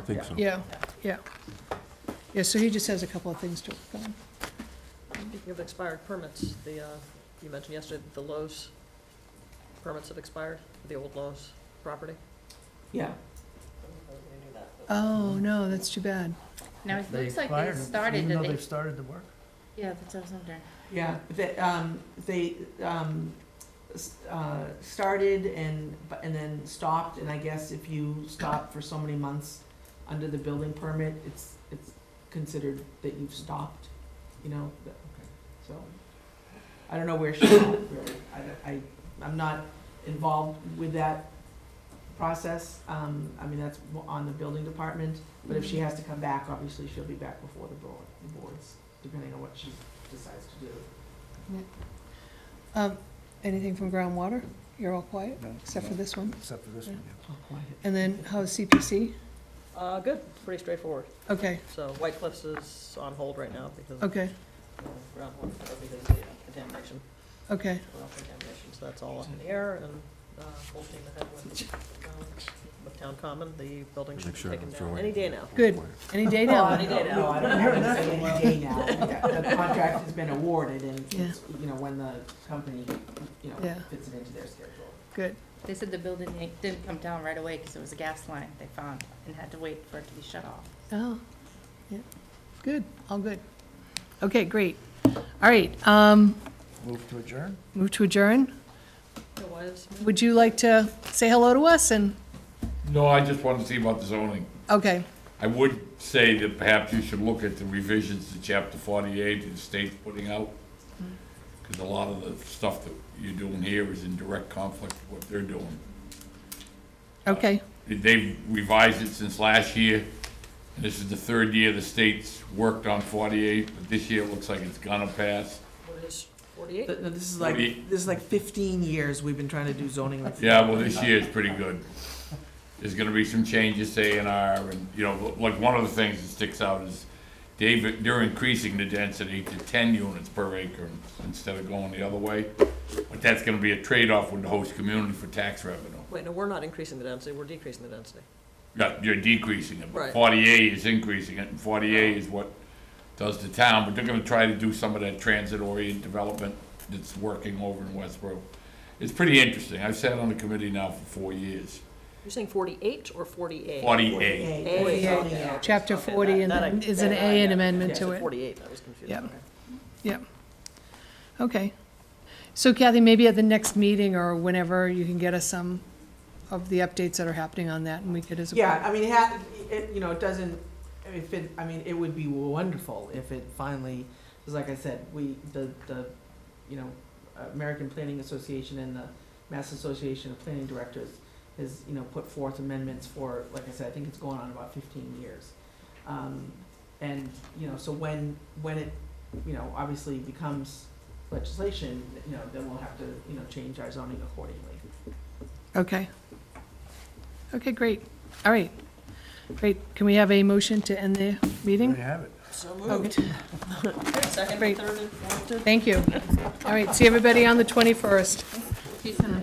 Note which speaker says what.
Speaker 1: think so.
Speaker 2: Yeah, yeah. Yeah, so he just has a couple of things to work on.
Speaker 3: Speaking of expired permits, the, uh, you mentioned yesterday that the Lowe's permits had expired, the old Lowe's property.
Speaker 4: Yeah,
Speaker 2: Oh, no, that's too bad.
Speaker 5: Now, it
Speaker 6: They
Speaker 5: looks like
Speaker 6: acquired
Speaker 5: they
Speaker 6: 'em,
Speaker 5: started,
Speaker 6: Even
Speaker 5: did
Speaker 6: though
Speaker 5: they?
Speaker 6: they've started the work.
Speaker 5: Yeah, that's what I was wondering.
Speaker 4: yeah, they, um, they, um, s- uh, started and, bu- and then stopped, and I guess if you stop for so many months under the building permit, it's, it's considered that you've stopped, you know, the- so. I don't know where she's at, really, I, don't- I, I'm not involved with that process, um, I mean, that's mo- on the building department, but if she has to come back, obviously she'll be back before the board, the boards, depending on what she decides to do.
Speaker 2: Um, anything from groundwater? You're all quiet,
Speaker 6: No,
Speaker 2: except for
Speaker 6: no,
Speaker 2: this one.
Speaker 6: Except for this one, yeah.
Speaker 4: Oh, quiet.
Speaker 2: And then how's CPC?
Speaker 3: Uh, good, pretty straightforward.
Speaker 2: Okay,
Speaker 3: So White Cliffs is on hold right now because of
Speaker 2: okay,
Speaker 3: uh, groundwater, uh, because of the uh, contamination,
Speaker 2: okay.
Speaker 3: well, contamination, so that's all up in the air and, uh, full steam ahead with, um, with Town Common, the building should
Speaker 1: Make
Speaker 3: be
Speaker 1: sure I
Speaker 3: taken
Speaker 1: don't throw
Speaker 3: down
Speaker 1: away.
Speaker 3: any day now.
Speaker 2: Good. Any day
Speaker 4: No,
Speaker 2: now.
Speaker 4: Oh, I don't know. I don't know. It's any day now. The the contract has been awarded and, it's, you know, when the company, you know,
Speaker 2: Yeah.
Speaker 4: fits it into their schedule.
Speaker 2: Good,
Speaker 5: They said the building ain't- didn't come down right away because it was a gas line they found and had to wait for it to be shut off.
Speaker 2: oh, yeah, good, all good. Okay, great. All right, um,
Speaker 6: Move to adjourn?
Speaker 2: move to adjourn.
Speaker 3: So why is-
Speaker 2: Would you like to say hello to us and,
Speaker 7: No, I just wanted to see about the zoning.
Speaker 2: okay,
Speaker 7: I would say that perhaps you should look at the revisions to chapter forty-eight that the state's putting out. Because a lot of the stuff that you're doing here is in direct conflict with what they're doing.
Speaker 2: okay,
Speaker 7: They've revised it since last year, and this is the third year the state's worked on forty-eight, but this year it looks like it's gonna pass.
Speaker 3: What is forty-eight?
Speaker 4: Th- no, This is like,
Speaker 7: Forty-
Speaker 4: this is like fifteen years we've been trying to do zoning reform.
Speaker 7: Yeah, well, this year is pretty good. There's gonna be some changes to A and R, and, you know, like, one of the things that sticks out is David, they're increasing the density to ten units per acre instead of going the other way. But that's gonna be a trade-off with the host community for tax revenue.
Speaker 3: Wait, no, we're not increasing the density, we're decreasing the density.
Speaker 7: Yeah, you're decreasing it,
Speaker 3: Right.
Speaker 7: but forty-eight is increasing it, and forty-eight is what does the town, but they're gonna try to do some of that transit-oriented development that's working over in Westboro. It's pretty interesting. I've sat on the committee now for four years.
Speaker 3: You're saying forty-eight or forty-eight?
Speaker 7: Forty-eight.
Speaker 4: Forty-eight. Forty-eight.
Speaker 3: Forty-eight.
Speaker 2: chapter
Speaker 3: Okay,
Speaker 2: forty,
Speaker 3: that-
Speaker 2: and
Speaker 3: that I-
Speaker 2: then is an
Speaker 3: that
Speaker 2: A
Speaker 3: I-
Speaker 2: and
Speaker 3: yeah,
Speaker 2: amendment
Speaker 3: yeah,
Speaker 2: to
Speaker 3: it's a
Speaker 2: it.
Speaker 3: Forty-eight, that was confusing.
Speaker 2: Yep. Okay. So Kathy, maybe at the next meeting or whenever, you can get us some of the updates that are happening on that, and we could as a.
Speaker 4: Yeah, I mean, it ha it, you know, it doesn't, if it, I mean, it would be wonderful if it finally, because like I said, we, the, the, you know, American Planning Association and the Mass Association of Planning Directors has, you know, put forth amendments for, like I said, I think it's going on about fifteen years. Um, and, you know, so when, when it, you know, obviously becomes legislation, you know, then we'll have to, you know, change our zoning accordingly.
Speaker 2: Okay. Okay, great. All right. Great. Can we have a motion to end the
Speaker 6: There
Speaker 2: meeting?
Speaker 6: you have it.
Speaker 3: So
Speaker 2: moved.
Speaker 3: Second,
Speaker 2: Great.
Speaker 3: third, and fourth,
Speaker 2: Thank you. All right, see everybody on the 21st.
Speaker 5: She's gonna